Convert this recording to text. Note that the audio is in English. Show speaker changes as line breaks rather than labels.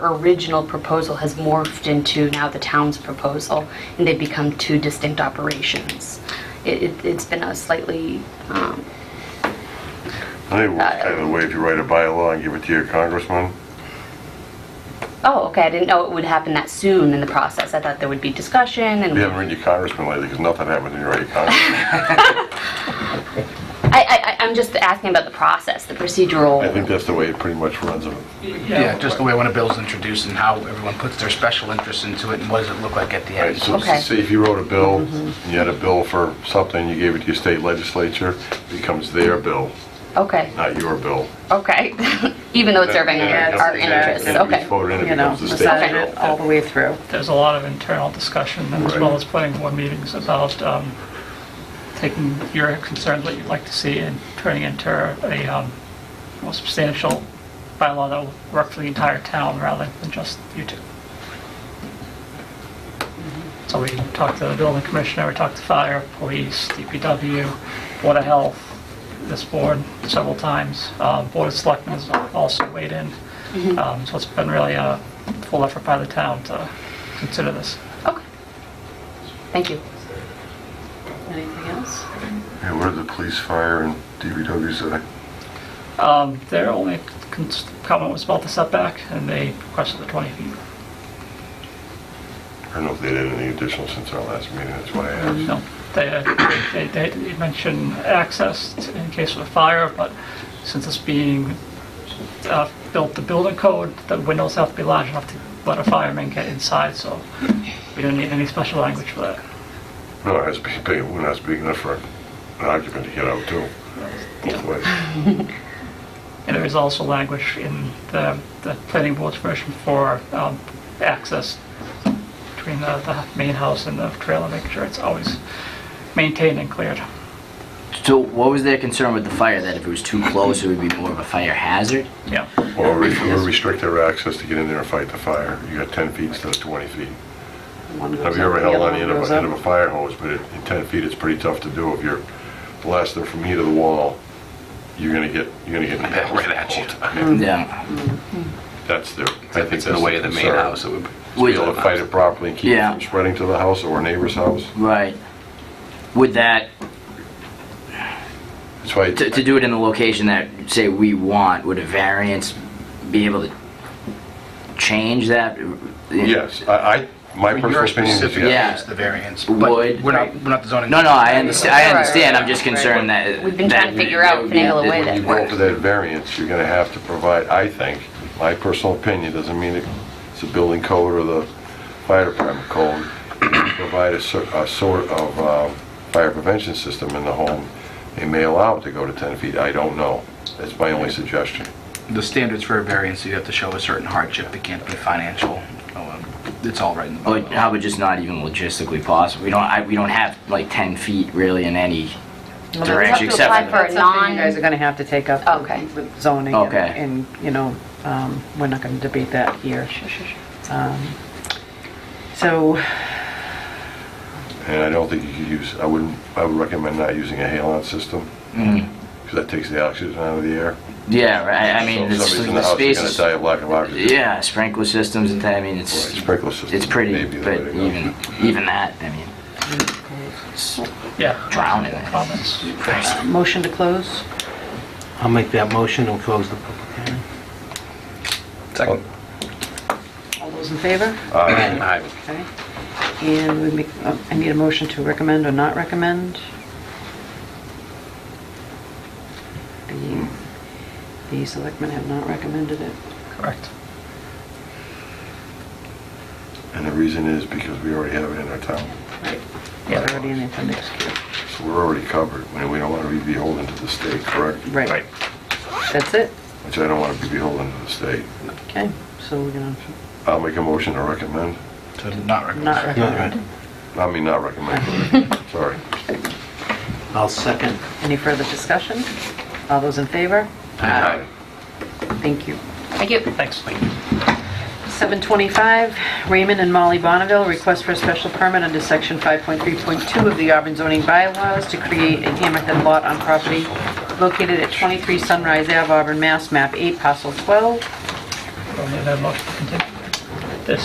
original proposal has morphed into now the town's proposal, and they've become two distinct operations. It, it- it's been a slightly, um,
I think it works either way, if you write a bylaw and give it to your congressman,
oh, okay, I didn't know it would happen that soon in the process. I thought there would be discussion and.
we haven't written your congressman lately, because nothing happens when you write your congressman.
I, I, I- I'm just asking about the process, the procedural.
I think that's the way it pretty much runs.
Yeah, just the way when a bill's introduced and how everyone puts their special interests into it and what does it look like at the
Right,
end.
so
Okay.
say if you wrote a bill, and you had a bill for something, you gave it to your state legislature, it becomes their bill,
Okay,
not your bill.
okay. Even though it's serving
Yeah,
our
yeah,
interests,
and if it's
okay.
voted in, it
you know,
becomes the state's
massage
bill.
it all the way through.
There's a lot of internal discussion, as well as planning board meetings, about um, taking your concerns, what you'd like to see, and turning into a um, more substantial bylaw that will work for the entire town rather than just you two. So we talked to the building commissioner, we talked to fire, police, DPW, Board of Health, this board several times. Uh, Board of Selectmen has also weighed in. Um, So it's been really a full effort by the town to consider this.
Okay. Thank you.
Anything else?
Yeah, where the police, fire, and DPW say?
Um, Their only cons- comment was about the setback, and they requested the 20 feet.
I don't know if they did anything additional since our last meeting, that's why I asked.
No, they, they, they did mention access t- in case of a fire, but since it's being uh, built to building code, the windows have to be large enough to let a fireman get inside, so we don't need any special language for that.
No, it has to be big, we're not big enough for an occupant to get out too, both ways.
And there is also language in the, the planning board's version for um, access between the, the main house and the trailer, making sure it's always maintained and cleared.
So what was their concern with the fire, that if it was too close, it would be more of a fire hazard?
Yeah.
Or re- or restrict their access to get in there and fight the fire. You got 10 feet instead of 20 feet.
One goes
Have you
up,
ever
the
held
other
on the
one
end of
goes
a, end of
up.
a fire hose, but at- in 10 feet, it's pretty tough to do. If you're blasting from here to the wall, you're gonna get, you're gonna get nailed
Right at you.
all the time.
Mm.
Yeah.
That's the, I
If
think
it's
that's
in the way of the main
concern.
house, it would.
To Be able to fight it properly and keep it
Yeah.
from spreading to the house or a neighbor's house.
Right. Would that,
That's why,
to, to do it in the location that, say, we want, would a variance be able to change that?
yes, I, I- my
I mean, Your
personal opinion
specific
is
Yeah.
yes.
variance, the variance. but
Would-
We're not, we're not the zoning.
No, no, I understand, I
Right, right,
understand, I'm
right,
just
right.
concerned that...
We've been trying to
that
figure
it
out,
would be-
finagle a way that
You go
works.
for that variance, you're gonna have to provide, I think, my personal opinion, doesn't mean it's the building code or the fire department code, provide a sort, a sort of, um, fire prevention system in the home. They may allow it to go to ten feet, I don't know. That's my only suggestion.
The standards for a variance, you have to show a certain hardship. It can't be financial. Oh, um, It's all right in the
Or
bylaw.
how about just not even logistically possible? We don't, I, we don't have, like, 10 feet really in any
Well, that's
direction,
up to
except
apply
for...
for-
the-
That's something you guys are gonna have to take up
Okay.
with- with zoning. and-
Okay.
And, you know, um, we're not gonna debate that here. Um, So,
And I don't think you could use, I wouldn't, I would recommend not using a halon system, because that takes the oxygen out of the air.
Yeah, right, Mm-hmm. I mean,
So if
the
somebody's in the
the
house,
space
you're gonna
is...
die of lack of oxygen.
Yeah, sprinkler systems and that, I mean,
Right,
it's,
Sprinkler system.
it's pretty,
maybe the way
but
to go.
even, even that, I mean, it's
Yeah.
drowning.
Comments?
motion to close?
I'll make that motion and close the public hearing.
Second.
All those in favor?
Uh.
Aye.
Okay. And we make, uh, I need a motion to recommend or not recommend. The, the selectmen have not recommended it.
Correct.
And the reason is because we already have it in our town.
Yeah.
Already in the appendix. Q.
So we're already covered. I mean, we don't want to be beholden to the state, correct?
Right, that's it.
Which I don't want to be beholden to the state.
Okay, so we're gonna
I'll make a motion to recommend.
To not recommend.
not recommend.
I mean, not recommend, sorry.
I'll second.
Any further discussion? All those in favor?
Aye.
Thank you.
Thank you.
Thanks.
725, Raymond and Molly Bonneville, request for a special permit under section 5.3.2 of the Auburn zoning bylaws to create a hammerhead lot on property located at 23 Sunrise Ave, Auburn, Mass, map 8, parcel 12.
we need a motion to continue.